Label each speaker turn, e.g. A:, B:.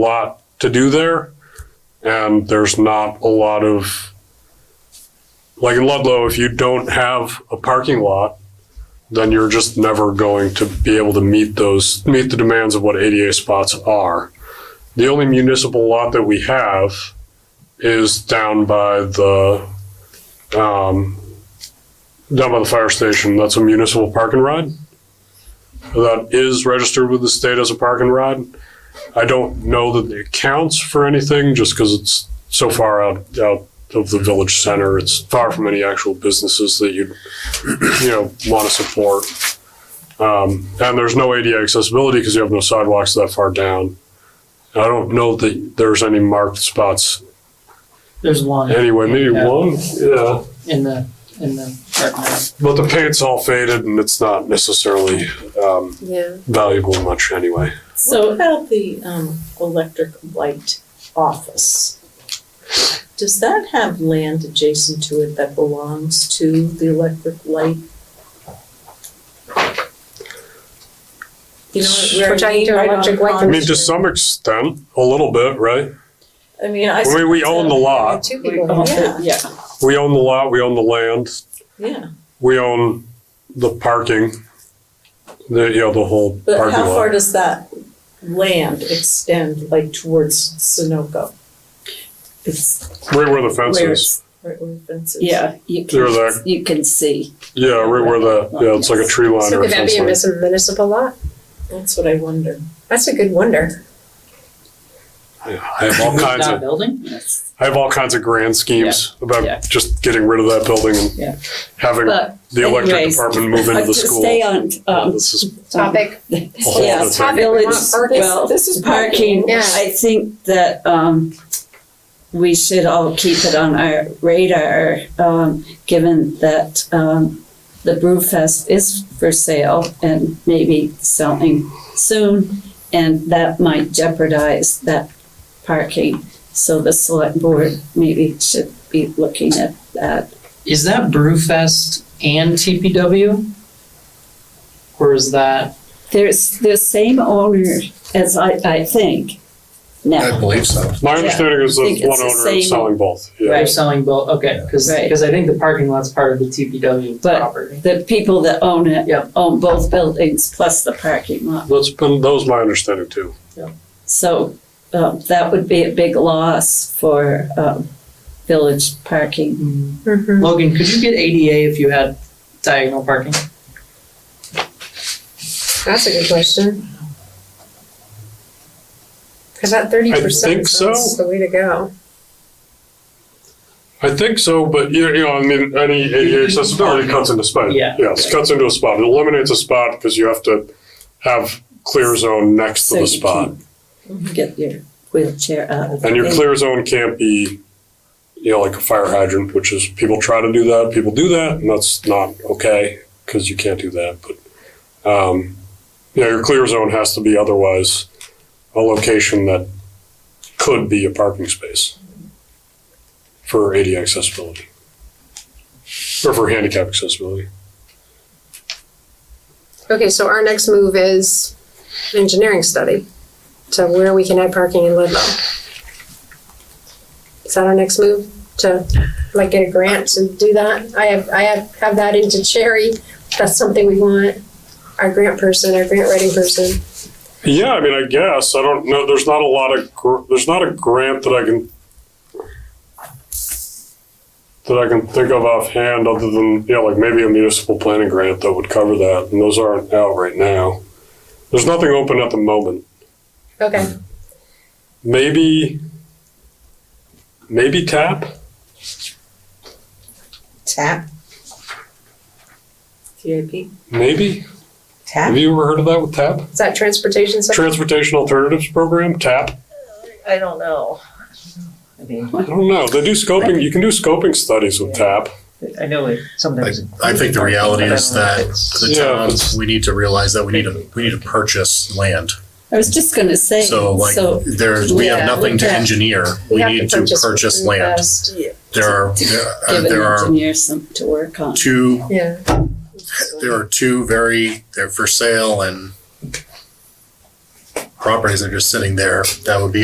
A: lot to do there, and there's not a lot of, like in Ludlow, if you don't have a parking lot, then you're just never going to be able to meet those, meet the demands of what ADA spots are. The only municipal lot that we have is down by the, um, down by the fire station. That's a municipal park and ride. That is registered with the state as a park and ride. I don't know that it counts for anything just because it's so far out, out of the village center. It's far from any actual businesses that you'd, you know, want to support. Um, and there's no ADA accessibility because you have no sidewalks that far down. I don't know that there's any marked spots
B: There's one
A: anyway. Maybe
B: Yeah.
A: one, yeah.
B: in the, in the recommend.
A: But the paint's all faded and it's not necessarily um,
C: Yeah.
A: valuable much anyway.
C: What about the um electric light office? Does that have land adjacent to it that belongs to the electric light? You know where
D: Which I
C: I mean,
D: do
C: right
D: electric
C: on
D: light.
A: I
C: Pond
A: mean, to
C: Street.
A: some extent, a little bit, right?
C: I mean, I. uh,
A: I mean, we own the lot.
D: Two people.
C: Oh, Yeah.
B: Yeah,
A: We own the lot, we own the land,
C: Yeah,
A: we own the parking, the, you know, the whole
C: but
A: parking
C: how far
A: lot.
C: does that land extend like towards Sunoco? It's
A: Right where the fence
C: where
A: is.
C: it's, right where the fence is.
E: Yeah, you
A: They're
E: can,
A: there.
E: you can see.
A: Yeah, right where the, yeah, it's like a tree line
D: So
A: or a
D: could that
A: fence
D: be a
A: line.
D: mis- municipal lot?
C: That's what I wonder.
D: That's a good wonder.
A: Yeah, I have all kinds
B: not a
A: of,
B: building, yes,
A: I have all kinds of grand schemes
B: yeah.
A: about just getting rid of that building
B: Yeah.
A: and having
E: But
A: the electric
E: anyways,
A: department move into the
E: to stay
A: school.
E: on,
A: Yeah,
E: um,
A: This is,
D: Topic.
A: whole
E: yeah,
A: other thing.
D: Topic,
E: village-
D: not parking.
E: well,
C: This is
E: parking,
D: Yeah.
E: I think that, um, we should all keep it on our radar, um, given that, um, the Brewfest is for sale and maybe selling soon, and that might jeopardize that parking. So the select board maybe should be looking at that.
B: Is that Brewfest and TPW? Or is that,
E: There's the same owner as I, I think
F: I
E: now.
F: believe so.
A: my
E: Yeah,
A: understanding is
E: I
A: that
E: think
A: one
E: it's the
A: owner is
E: same-
A: selling both, yeah.
B: they're selling both, okay, cause,
E: Right.
B: 'cause I think the parking lot's part of the TPW
E: But-
B: property.
E: The people that own it
B: Yeah.
E: own both buildings plus the parking lot.
A: That's been, that was my understanding too.
E: So um, that would be a big loss for um, village parking.
B: Mm.
D: Mm-hmm.
B: Logan, could you get ADA if you had diagonal parking?
D: That's a good question. Cause that thirty
A: think
D: percent
A: so.
D: is the way to go.
A: I think so, but you know, you know, I mean, any ADA accessibility cuts into space.
B: Yeah.
A: Yes, cuts into a spot. It eliminates a spot because you have to have clear zone next to
E: So
A: the
E: you
A: spot.
E: can't Get your wheelchair out of the
A: And your
E: way.
A: clear zone can't be, you know, like a fire hydrant, which is, people try to do that, people do that, and that's not okay, because you can't do that, but, um, yeah, your clear zone has to be otherwise a location that could be a parking space for ADA accessibility. Or for handicap accessibility.
D: Okay, so our next move is engineering study to where we can add parking in Ludlow. Is that our next move? To like get a grant to do that? I have, I have, have that into Cherry. That's something we want. Our grant person, our grant writing person.
A: Yeah, I mean, I guess, I don't know, there's not a lot of, gr- there's not a grant that I can, that I can think of offhand, other than, you know, like maybe a municipal planning grant that would cover that, and those aren't out right now. There's nothing open at the moment.
D: Okay,
A: Maybe, maybe TAP?
G: Tap,
C: TIP.
A: Maybe? Have
G: tap.
A: you ever heard of that with TAP?
D: is that transportation stuff?
A: Transportation Alternatives Program, TAP?
G: I don't know.
B: I mean,
A: I don't know, they do scoping, you can do scoping studies with TAP.
G: I know it
F: I,
G: sometimes.
F: I think the reality is that the
A: Yeah,
F: towns, we need to realize that we need to, we need to purchase land.
E: I was just gonna say,
F: So like,
E: so
F: there's, we
D: Yeah,
F: have nothing to
E: yeah.
F: engineer. We need to purchase land. There are, there
E: give
F: are-
E: an
F: uh, there are
E: engineer something to work on.
F: two,
D: Yeah.
F: there are two very, they're for sale and properties that are just sitting there that would be